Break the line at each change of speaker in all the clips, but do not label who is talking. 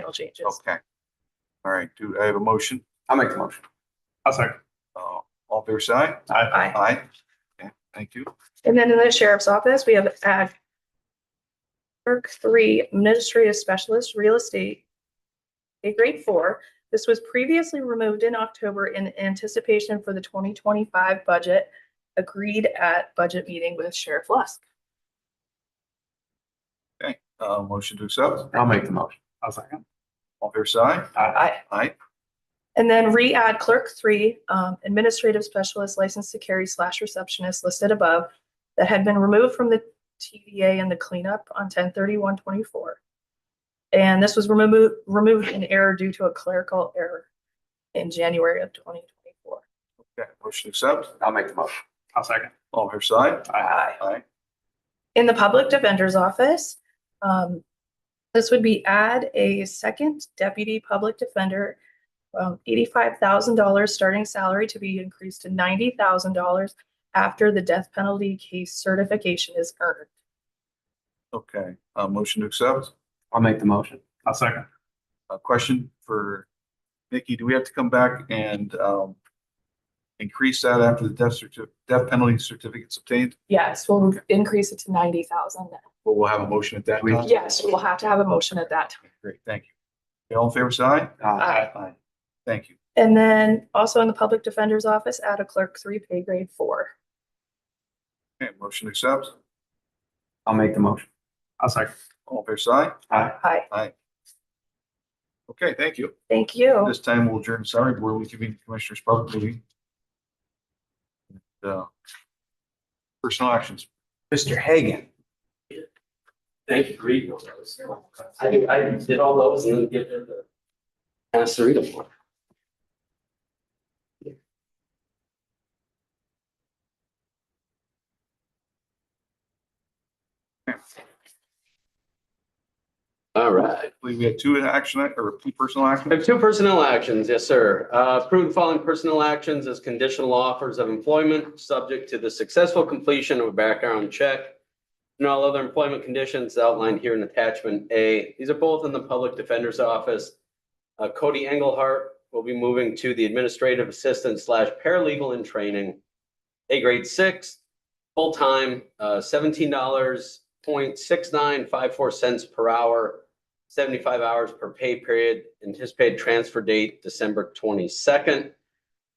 title changes.
Okay. All right, do I have a motion?
I'll make the motion.
I'll second.
Uh, all fair side?
Aye.
Aye.
Aye. Okay, Thank you.
And then in the sheriff's office, we have ag. Clerk three, administrative specialist, real estate. A grade four. This was previously removed in October in anticipation for the twenty twenty-five budget. Agreed at budget meeting with Sheriff Lusk.
Uh, motion to accept,
I'll make the motion.
I'll second.
all fair side?
Aye.
Aye.
And then re-add clerk three, um, administrative specialist license to carry slash receptionist listed above. That had been removed from the TDA and the cleanup on ten thirty-one twenty-four. And this was removed, removed in error due to a clerical error in January of twenty twenty-four.
Okay, motion to accept,
I'll make the motion.
I'll second.
all fair side?
Aye.
Aye.
Oh. In the public defender's office, um, this would be add a second deputy public defender. Um, eighty-five thousand dollars starting salary to be increased to ninety thousand dollars after the death penalty case certification is earned.
Okay, uh, motion to accept,
I'll make the motion.
I'll second.
a question for Nikki, do we have to come back and, um, increase that after the death certi- death penalty certificate's obtained,
Yes, we'll increase it to ninety thousand.
but we'll have a motion at that
We-
time?
Yes, we'll have to have a motion at that time.
Great, thank you. Okay, All in favor side?
Aye.
Aye.
Aye. Thank you.
And then also in the public defender's office, add a clerk three pay grade four.
Okay, motion to accept,
I'll make the motion.
I'll second.
all fair side?
Aye.
Hi,
Okay, thank you.
thank you.
This time we'll adjourn salary board, we convene the commissioners public meeting. And, uh, Personal actions.
Mr. Hagan.
Thank you for reading all those. I, I did all those and then give them the. Ask to read them for. All right.
I believe we had two in action i- or two personal
We
actions.
have two personnel actions, yes, sir. Uh, approve the following personnel actions as conditional offers of employment, subject to the successful completion of a background check and all other employment conditions outlined here in attachment A. These are both in the Public Defender's Office. Uh, Cody Engelhardt will be moving to the Administrative Assistant slash Paralegal in Training, A grade six, full-time, uh, seventeen dollars, point six nine five four cents per hour, seventy-five hours per pay period, anticipated transfer date December twenty-second.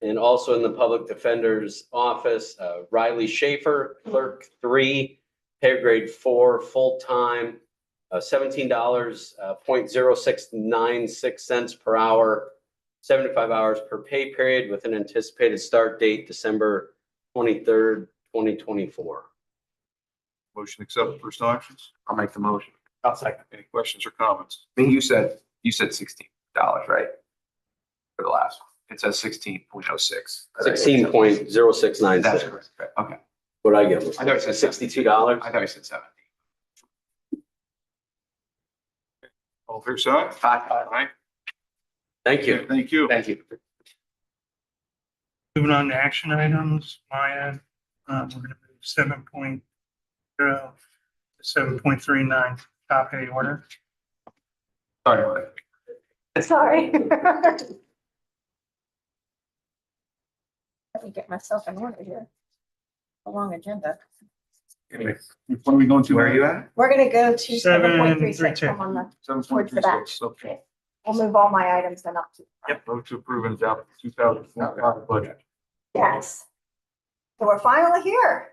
And also in the Public Defender's Office, uh, Riley Schaefer, Clerk Three, pay grade four, full-time, uh, seventeen dollars, uh, point zero six nine six cents per hour, seventy-five hours per pay period with an anticipated start date December twenty-third, twenty twenty-four.
Motion to accept personal actions.
I'll make the motion.
I'll second.
Any questions or comments?
I think you said, you said sixteen dollars, right? For the last one. It says sixteen point oh six.
Sixteen point zero six nine
That's
six.
correct. Okay.
What'd I give
I thought
them?
it said
Sixty-two dollars?
I thought you said seventeen.
All fair side?
Aye.
Aye.
Thank you.
Thank you.
Thank you.
Moving on to action items, Maya, um, we're gonna move seven point zero, seven point three nine, top A order.
Sorry.
Sorry.
Let me get myself in order here. A long agenda.
What are we going to?
Where are you at?
We're gonna go to seven point three six.
7.32.
Come on, the-
Seven point
Towards
three
the back.
six. Okay.
We'll move all my items then up to.
Yep, vote to approve and adopt two thousand twenty-five budget.
Yes. So we're finally here.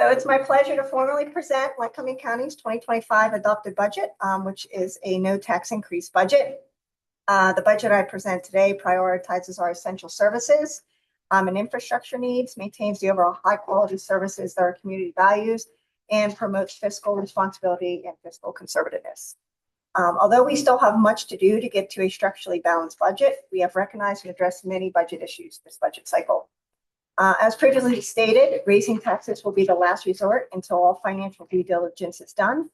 So it's my pleasure to formally present Lycoming County's twenty twenty-five adopted budget, um, which is a no tax increase budget. Uh, the budget I present today prioritizes our essential services, um, and infrastructure needs, maintains the overall high quality services that our community values, and promotes fiscal responsibility and fiscal conservativeness. Um, although we still have much to do to get to a structurally balanced budget, we have recognized and addressed many budget issues this budget cycle. Uh, as previously stated, raising taxes will be the last resort until all financial due diligence is done.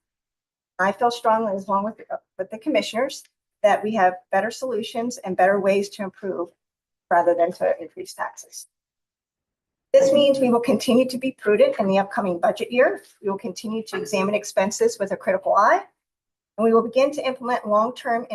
I feel strongly, as long with, with the commissioners, that we have better solutions and better ways to improve rather than to increase taxes. This means we will continue to be prudent in the upcoming budget year. We will continue to examine expenses with a critical eye and we will begin to implement long-term